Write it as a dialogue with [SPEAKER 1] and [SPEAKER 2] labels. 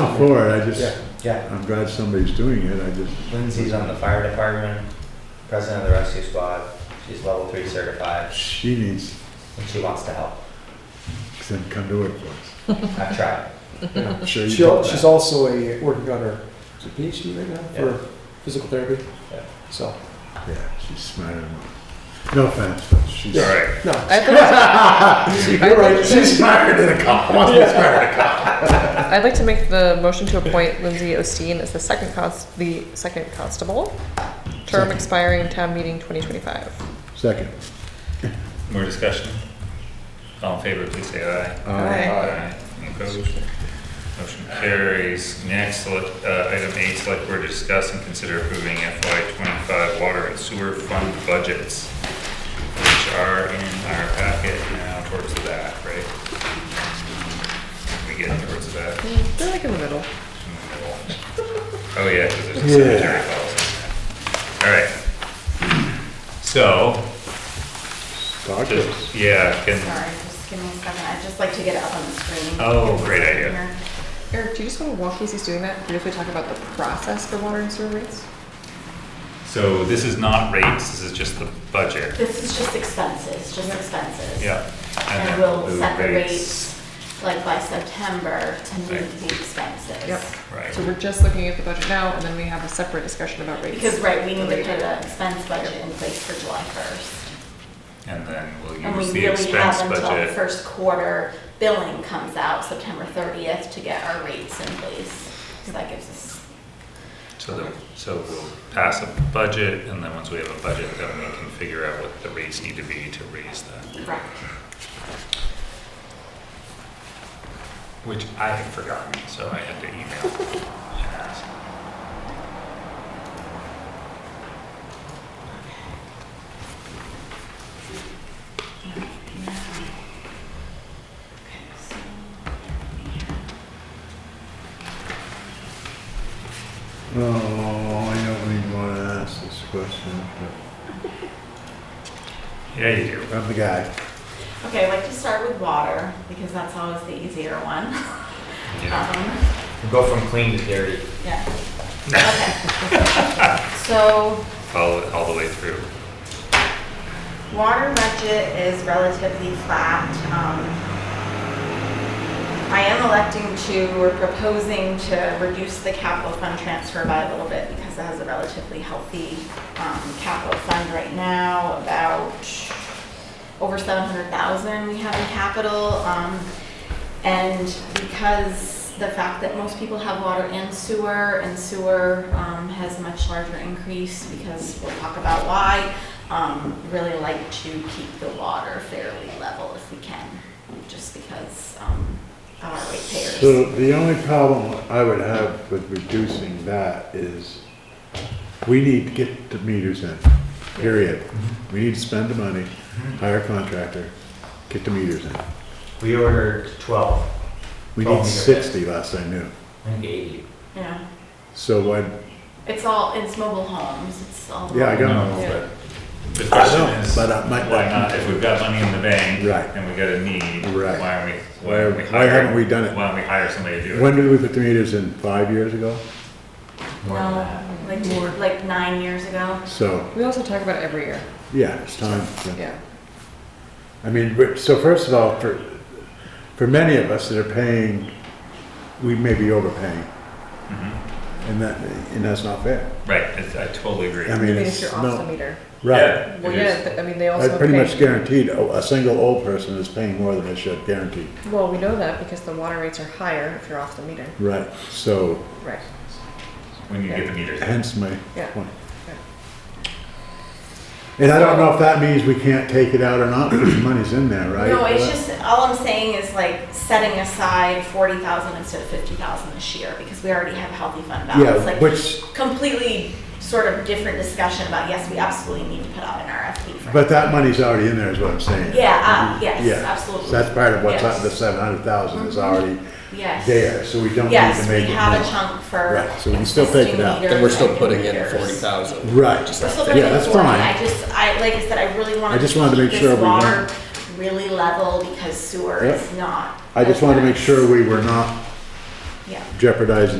[SPEAKER 1] for it, I just,
[SPEAKER 2] Yeah.
[SPEAKER 3] Yeah,
[SPEAKER 1] I'm glad somebody's doing it, I just.
[SPEAKER 3] Lindsay's on the fire department, president of the rescue squad. She's level three certified
[SPEAKER 1] She needs
[SPEAKER 3] and she wants to help.
[SPEAKER 1] to come to work for
[SPEAKER 3] I've tried.
[SPEAKER 1] us. I'm sure you
[SPEAKER 2] She, al-
[SPEAKER 1] got
[SPEAKER 2] she's
[SPEAKER 1] that.
[SPEAKER 2] also a, working on her is it PhD right now
[SPEAKER 3] Yeah.
[SPEAKER 2] for physical therapy.
[SPEAKER 3] Yeah.
[SPEAKER 2] So,
[SPEAKER 1] Yeah, she's smart enough. No offense, but she's.
[SPEAKER 2] Yeah. no.
[SPEAKER 4] I thought-
[SPEAKER 2] You're right. She's
[SPEAKER 1] smarter than a cop, must be smarter than a cop.
[SPEAKER 4] I'd like to make the motion to appoint Lindsay Osteen as the second const, the second constable, term
[SPEAKER 1] Second.
[SPEAKER 4] expiring town meeting 2025.
[SPEAKER 1] Second.
[SPEAKER 5] More discussion? All in favor, please say aye.
[SPEAKER 4] Aye.
[SPEAKER 5] Any Opposed? Motion carries. Next, select- uh, item eight, select board to discuss and consider approving FY twenty-five water and sewer fund budgets, which are in our packet now towards the back, right? We get towards the back.
[SPEAKER 4] Mm, They're like in the middle.
[SPEAKER 5] in the middle. Oh, yeah, because there's a cemetery policy. in there. All right. So,
[SPEAKER 1] Talk to us.
[SPEAKER 5] just, yeah, can,
[SPEAKER 6] Sorry, just give me a second. I'd just like to get it up on the screen.
[SPEAKER 5] Oh, great idea.
[SPEAKER 4] Eric, do you just want to, while Casey's doing that, briefly talk about the process for water and sewer rates?
[SPEAKER 5] So this is not rates, this is just the budget.
[SPEAKER 6] This is just expenses, just expenses.
[SPEAKER 5] Yeah.
[SPEAKER 6] And
[SPEAKER 5] then
[SPEAKER 6] we'll
[SPEAKER 5] the
[SPEAKER 6] set the rates, like by September, to meet the expenses.
[SPEAKER 4] Yep.
[SPEAKER 5] Right.
[SPEAKER 4] So we're just looking at the budget now, and then we have a separate discussion about rates.
[SPEAKER 6] Because, right, we need to put an expense budget in place for July 1st.
[SPEAKER 5] And then we'll
[SPEAKER 6] And we
[SPEAKER 5] use the
[SPEAKER 6] really have
[SPEAKER 5] expense
[SPEAKER 6] until the
[SPEAKER 5] budget.
[SPEAKER 6] first quarter billing comes out, September 30th, to get our rates in place. So that gives us,
[SPEAKER 5] So then, so we'll pass a budget and then once we have a budget, then we can figure out what the rates need to be to raise that.
[SPEAKER 6] correct.
[SPEAKER 5] Which I had forgotten, so I had to email. Yes.
[SPEAKER 6] Okay, so,
[SPEAKER 1] Oh, I don't even wanna ask this question,
[SPEAKER 5] Yeah, you do.
[SPEAKER 1] but I'm the guy.
[SPEAKER 6] Okay, I'd like to start with water, because that's always the easier one.
[SPEAKER 5] Yeah.
[SPEAKER 6] Um,
[SPEAKER 3] We'll Go from clean to dirty.
[SPEAKER 6] Yeah. Okay. So,
[SPEAKER 5] Follow it all the way through.
[SPEAKER 6] water budget is relatively flat. Um, I am electing to, or proposing to reduce the capital fund transfer by a little bit because it has a relatively healthy um, capital fund right now, about over 700,000 we have in capital. Um, And because the fact that most people have water and sewer, and sewer um, has a much larger increase, because we'll talk about why, um, really like to keep the water fairly level if we can, just because um, of our rate
[SPEAKER 1] So
[SPEAKER 6] payers.
[SPEAKER 1] the only problem I would have with reducing that is we need to get the meters in, period.
[SPEAKER 5] Mm-hmm.
[SPEAKER 1] We need to spend the money, hire a contractor, get the meters in.
[SPEAKER 3] We ordered twelve,
[SPEAKER 1] We
[SPEAKER 3] Twelve
[SPEAKER 1] need
[SPEAKER 3] meters.
[SPEAKER 1] sixty last I knew.
[SPEAKER 3] I think eighty.
[SPEAKER 6] Yeah,
[SPEAKER 1] So why,
[SPEAKER 6] it's all, it's mobile homes, it's all.
[SPEAKER 1] yeah, I got
[SPEAKER 5] No,
[SPEAKER 4] Yeah.
[SPEAKER 5] but The
[SPEAKER 1] I
[SPEAKER 5] question
[SPEAKER 1] know,
[SPEAKER 5] is,
[SPEAKER 1] but uh, I might-
[SPEAKER 5] why not, if we've got money in the bank?
[SPEAKER 1] Right.
[SPEAKER 5] And we got a need,
[SPEAKER 1] Right.
[SPEAKER 5] why aren't we,
[SPEAKER 1] Why-
[SPEAKER 5] why aren't we
[SPEAKER 1] why
[SPEAKER 5] hiring?
[SPEAKER 1] haven't we done it?
[SPEAKER 5] Why don't we hire somebody to do it?
[SPEAKER 1] When did we put the meters in? Five years ago?
[SPEAKER 3] More than that.
[SPEAKER 6] No, like, two- like nine years ago.
[SPEAKER 1] So,
[SPEAKER 4] We also talk about it every year.
[SPEAKER 1] yeah, it's time. to-
[SPEAKER 4] Yeah.
[SPEAKER 1] I mean, but- so first of all, for, for many of us that are paying, we may be overpaying. And that, and that's not fair.
[SPEAKER 5] Right, it's- I totally agree.
[SPEAKER 1] I mean,
[SPEAKER 4] Even if
[SPEAKER 1] it's
[SPEAKER 4] you're off the
[SPEAKER 1] no,
[SPEAKER 4] meter.
[SPEAKER 1] right.
[SPEAKER 5] Yeah,
[SPEAKER 4] Well,
[SPEAKER 5] it is.
[SPEAKER 4] yeah, th- I mean, they
[SPEAKER 1] I
[SPEAKER 4] also
[SPEAKER 1] pretty much
[SPEAKER 4] pay.
[SPEAKER 1] guaranteed, Oh, a a single old person is paying more than they should, guaranteed.
[SPEAKER 4] Well, we know that because the water rates are higher if you're off the meter.
[SPEAKER 1] Right, so
[SPEAKER 4] Right.
[SPEAKER 5] When you get the meters.
[SPEAKER 1] hence my
[SPEAKER 4] Yeah.
[SPEAKER 1] point. And I don't know if that means we can't take it out or not, because the money's in there, right? Uh,
[SPEAKER 6] No, it's just, all I'm saying is like setting aside forty thousand instead of fifty thousand this year, because we already have healthy fund balance.
[SPEAKER 1] Yeah,
[SPEAKER 6] Like
[SPEAKER 1] which,
[SPEAKER 6] Completely sort of different discussion about, yes, we absolutely need to put out an RFP for.
[SPEAKER 1] but that money's already in there is what I'm saying.
[SPEAKER 6] Yeah, uh, yes,
[SPEAKER 1] Yeah. So
[SPEAKER 6] absolutely,
[SPEAKER 1] that's part of what's,
[SPEAKER 6] Yes.
[SPEAKER 1] the seven hundred thousand is already
[SPEAKER 6] yes.
[SPEAKER 1] there, so we don't need to
[SPEAKER 6] Yes, we
[SPEAKER 1] make it
[SPEAKER 6] have a
[SPEAKER 1] more.
[SPEAKER 6] chunk for.
[SPEAKER 1] Right, so we can still take it
[SPEAKER 6] existing
[SPEAKER 1] out. Then
[SPEAKER 7] Then
[SPEAKER 6] meters
[SPEAKER 7] we're still
[SPEAKER 6] and
[SPEAKER 7] putting in
[SPEAKER 6] computers.
[SPEAKER 7] forty thousand.
[SPEAKER 1] Right,
[SPEAKER 6] We're still
[SPEAKER 1] Yeah,
[SPEAKER 6] putting in
[SPEAKER 1] that's
[SPEAKER 6] 40.
[SPEAKER 1] fine.
[SPEAKER 6] I just, I, like I said, I really wanted
[SPEAKER 1] I
[SPEAKER 6] to
[SPEAKER 1] just wanted to make
[SPEAKER 6] keep
[SPEAKER 1] sure
[SPEAKER 6] this
[SPEAKER 1] we
[SPEAKER 6] water
[SPEAKER 1] weren't-
[SPEAKER 6] really level because sewer
[SPEAKER 1] Yeah.
[SPEAKER 6] is not.
[SPEAKER 1] I just wanted to make
[SPEAKER 6] as
[SPEAKER 1] sure
[SPEAKER 6] bad.
[SPEAKER 1] we were not
[SPEAKER 6] Yeah.
[SPEAKER 1] jeopardizing